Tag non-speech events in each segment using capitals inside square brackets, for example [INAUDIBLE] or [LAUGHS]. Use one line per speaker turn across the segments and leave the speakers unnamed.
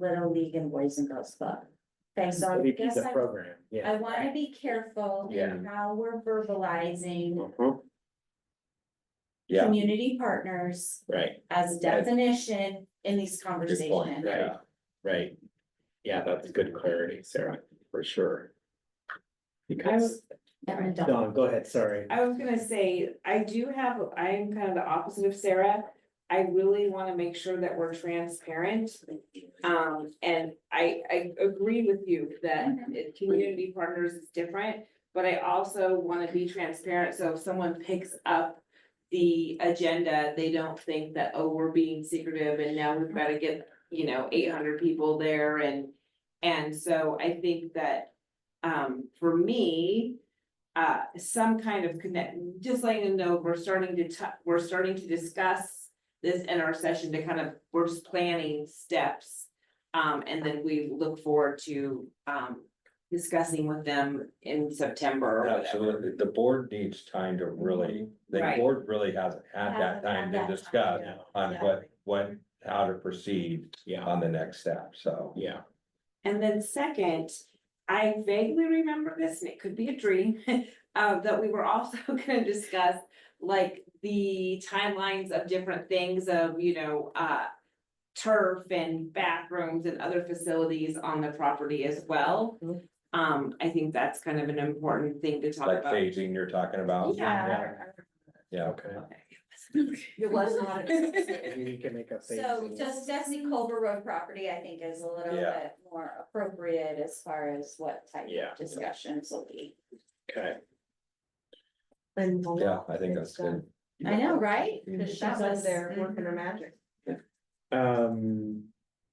Little League and Boys and Girls Club. Okay, so I
MVP
guess
the
I,
program, yeah.
I wanna be careful in how we're verbalizing
Mhm. Yeah,
community partners
right,
as definition in these conversations.
right, right. Yeah, that's good clarity, Sarah, for sure. Because,
I'm an adult.
Don, go ahead, sorry.
I was gonna say, I do have, I'm kind of the opposite of Sarah. I really wanna make sure that we're transparent. Um, and I, I agree with you that it- community partners is different, but I also wanna be transparent, so if someone picks up. The agenda, they don't think that, oh, we're being secretive and now we've gotta get, you know, eight hundred people there and. And so I think that, um, for me, uh, some kind of connect, just letting them know we're starting to tou- we're starting to discuss. This in our session to kind of, we're just planning steps. Um, and then we look forward to, um, discussing with them in September or whatever.
Absolutely, the board needs time to really, the
Right.
board really hasn't had that
Mm-hmm. Hasn't had
time to
that time,
discuss
yeah.
on
Yeah.
what, what, how to proceed
Yeah,
on the next step, so.
yeah,
And then second, I vaguely remember this, and it could be a dream, [LAUGHS] uh, that we were also [LAUGHS] gonna discuss. Like the timelines of different things of, you know, uh. Turf and bathrooms and other facilities on the property as well.
Mhm.
Mm-hmm.
Um, I think that's kind of an important thing to talk
Like
about.
phasing you're talking about,
Yeah.
yeah,
okay.
It was not.
[LAUGHS]
Maybe you can make a face.
So just Desi Culver Road property, I think is a little
Yeah.
bit more appropriate as far as what type
Yeah.
of discussions will be.
Okay,
And. the
yeah,
law
I think
is
that's good.
I know, right?
Mhm.
Mm-hmm.
Cause
She's
that
up
was Mhm.
there working her magic.
um,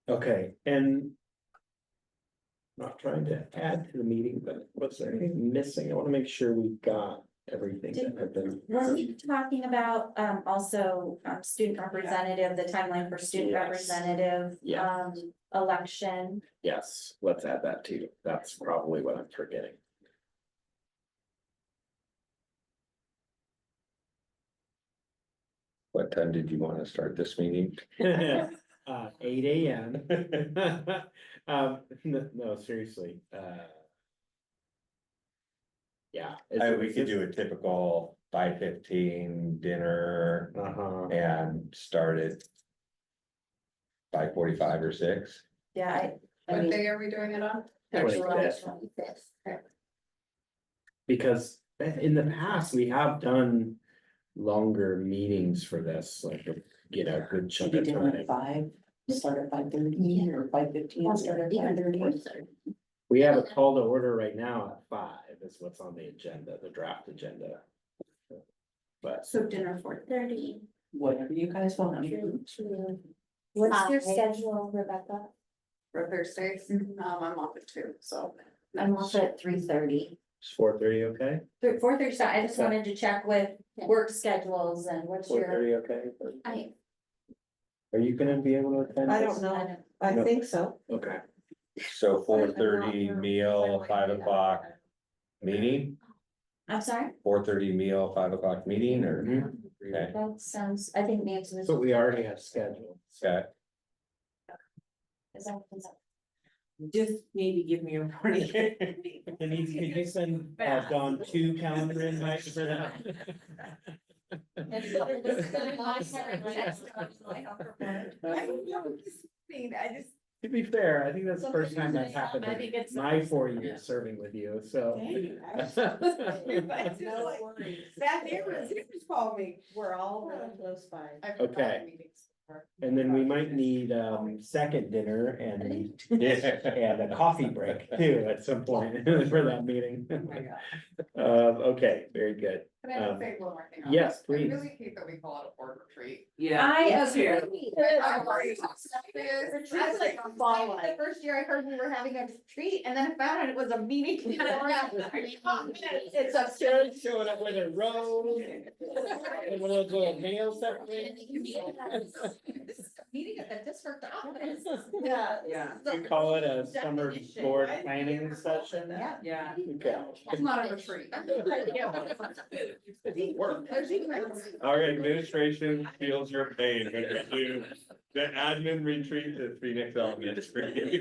okay, and. Not trying to add to the meeting, but was there anything missing? I wanna make sure we got everything that had been.
Were we talking about um also um student representative, the timeline for student
Yes.
representative?
Yeah.
Um, election,
Yes, let's add that too. That's probably what I'm forgetting.
What time did you wanna start this meeting?
[LAUGHS] Uh, eight AM. [LAUGHS] Um, no, no, seriously, uh. Yeah.
I, we could do a typical five fifteen dinner
Uh-huh,
and start at five forty-five or six.
yeah, I, I
What
mean.
day are we doing it on?
July
25th.
25th.
because in the past, we have done longer meetings for this, like, you know, a good chunk
Should be
of
doing
time.
it at five, start at five thirty or five fifteen, start at five thirty.
We have a call to order right now at five is what's on the agenda, the draft agenda. But.
So dinner four thirty.
Whatever you guys want.
What's your
Five.
schedule, Rebecca?
For Thursdays, um,
Mhm.
I'm off at two, so.
I'm also at three thirty.
It's four thirty, okay?
Four thirty, I just
Yeah.
wanted to check with
Yeah.
work schedules and what's
Four
your.
thirty, okay?
I-
Are you gonna be able to attend?
I
this?
don't know, I
No.
think so.
Okay,
So four thirty meal, five o'clock meeting?
I'm sorry,
four thirty meal, five o'clock meeting or?
Mm-hmm.
Okay,
that sounds, I think Nancy was.
so we already have scheduled.
okay,
is that- is [LAUGHS] that-
Just maybe give me a warning. [LAUGHS]
Denise, could you send uh,
Fast.
Dawn two calendar invites for that?
That's what it was gonna be. I was like, "Oh, I'll prepare.
I don't know, just, I mean, I just.
To be fair, I think that's the first time that's happened
I think
in
it's-
my four years serving with you, so.
Dang, [LAUGHS] I was just like, That neighbor, you just called me.
We're all real close by.
I've got
Okay.
meetings for-
And then we might need um second dinner and
yeah,
and a coffee break too at some point [LAUGHS] for that meeting.
Oh my God.
Uh, okay, very good.
Can I
Um,
just say one more thing? on
yes,
this?
please.
I really hate that we call it a board retreat.
Yeah.
I
it's here.
agree.
I'm already talked about this.
Retreats
I was
like
like,
fall. The first year I heard we were having a retreat and then I found out it was a [LAUGHS] meeting. It's absurd.
Showing up with a robe and one of those little nail separators.
Meeting at the district office.
Yeah.
Yeah.
We call it a summer board planning session.
Yeah.
Yeah.
Okay.
It's not a retreat.
Work.
Motion
[LAUGHS] Our administration feels your pain when you do the admin retreat at Phoenix Elementary.